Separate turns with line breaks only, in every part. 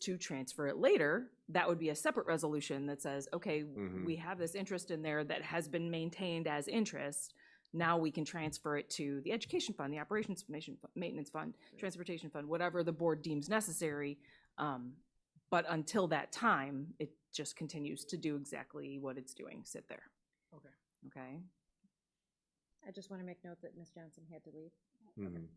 to transfer it later, that would be a separate resolution that says, okay,
Mhm.
we have this interest in there that has been maintained as interest. Now we can transfer it to the education fund, the operations formation fu- maintenance fund, transportation fund, whatever the board deems necessary. Um, but until that time, it just continues to do exactly what it's doing, sit there.
Okay.
Okay?
I just want to make note that Ms. Johnson had to leave.
Mhm.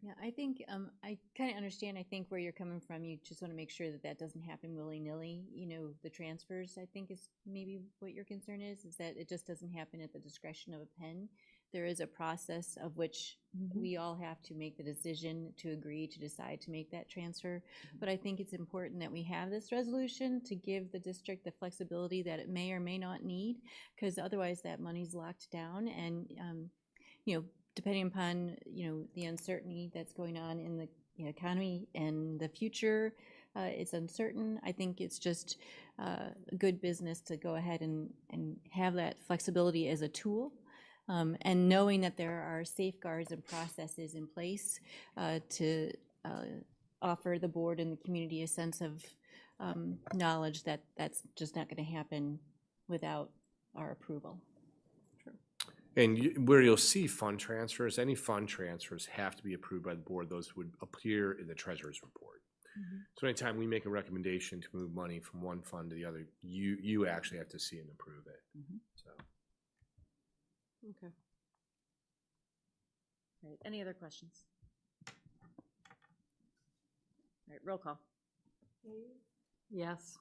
Yeah, I think, um, I kind of understand, I think where you're coming from, you just want to make sure that that doesn't happen willy-nilly, you know, the transfers, I think is maybe what your concern is, is that it just doesn't happen at the discretion of a pen. There is a process of which
Mm-hmm.
we all have to make the decision to agree to decide to make that transfer.
Mm-hmm.
But I think it's important that we have this resolution to give the district the flexibility that it may or may not need, because otherwise that money's locked down and, um, you know, depending upon, you know, the uncertainty that's going on in the you know, economy and the future, uh, it's uncertain. I think it's just, uh, good business to go ahead and, and have that flexibility as a tool. Um, and knowing that there are safeguards and processes in place, uh, to, uh, offer the board and the community a sense of, um, knowledge that that's just not gonna happen without our approval.
And you- where you'll see fund transfers, any fund transfers have to be approved by the board. Those would appear in the treasurer's report. So anytime we make a recommendation to move money from one fund to the other, you, you actually have to see and approve it.
Mhm.
So,
Okay. All right, any other questions? All right, roll call. Yes.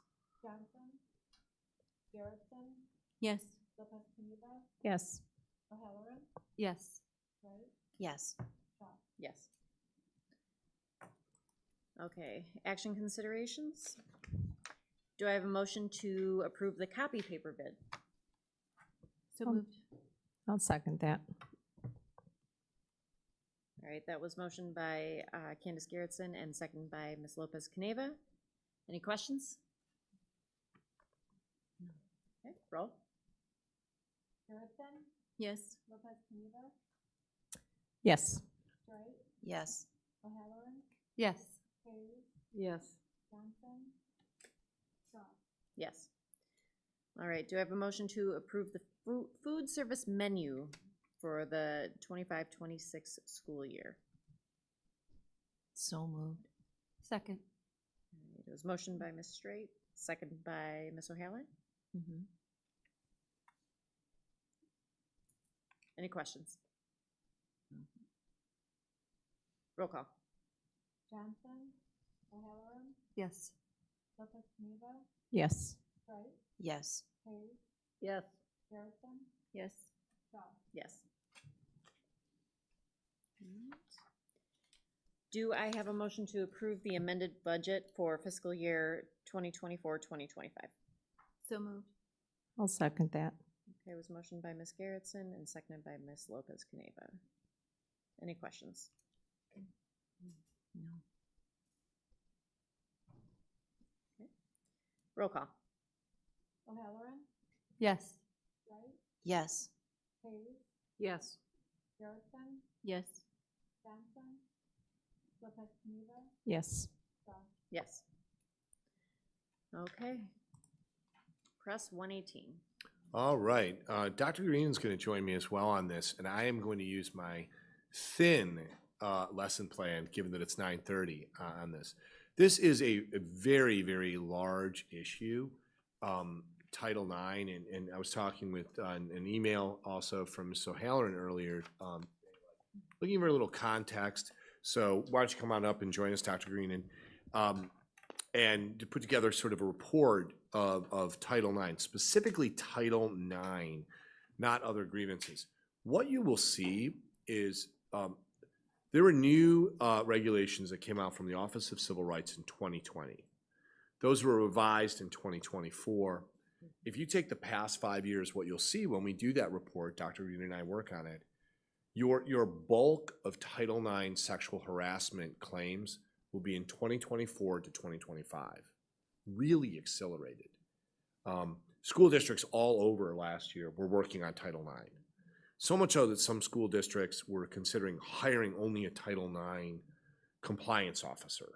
Yes?
Yes.
Yes.
Yes. Yes. Okay, action considerations? Do I have a motion to approve the copy paper bid?
So
Um,
moved.
I'll second that.
All right, that was motion by uh, Candace Garrettson and second by Ms. Lopez Caneva. Any questions? Okay, roll.
Yes.
Yes.
Yes.
Yes.
Yes.
Yes. All right, do I have a motion to approve the fu- food service menu for the 25-26 school year?
So moved. Second.
All right, It was motion by Ms. Straight, second by Ms. O'Halloran.
Mm-hmm.
Any questions? Roll call.
Yes.
Yes.
Yes.
Yes.
Yes.
Yes. Alright. Do I have a motion to approve the amended budget for fiscal year 2024-2025?
So moved.
I'll second that.
Okay, it was motion by Ms. Garrettson and seconded by Ms. Lopez Caneva. Any questions?
No.
Roll call.
Yes.
Yes.
Yes.
Yes.
Yes.
Yes. Okay. Press one eighteen.
All right, uh, Dr. Green's gonna join me as well on this, and I am going to use my thin, uh, lesson plan, given that it's nine thirty, uh, on this. This is a, a very, very large issue, um, Title IX, and, and I was talking with, uh, an an email also from Ms. O'Halloran earlier, um, looking for a little context, so why don't you come on up and join us, Dr. Green, and, um, and to put together sort of a report of, of Title IX, specifically Title IX, not other grievances. What you will see is um, there were new uh, regulations that came out from the Office of Civil Rights in 2020. Those were revised in 2024. If you take the past five years, what you'll see when we do that report, Dr. Green and I work on it, your, your bulk of Title IX sexual harassment claims will be in 2024 to 2025. Really accelerated. Um, school districts all over last year were working on Title IX. So much so that some school districts were considering hiring only a Title IX compliance officer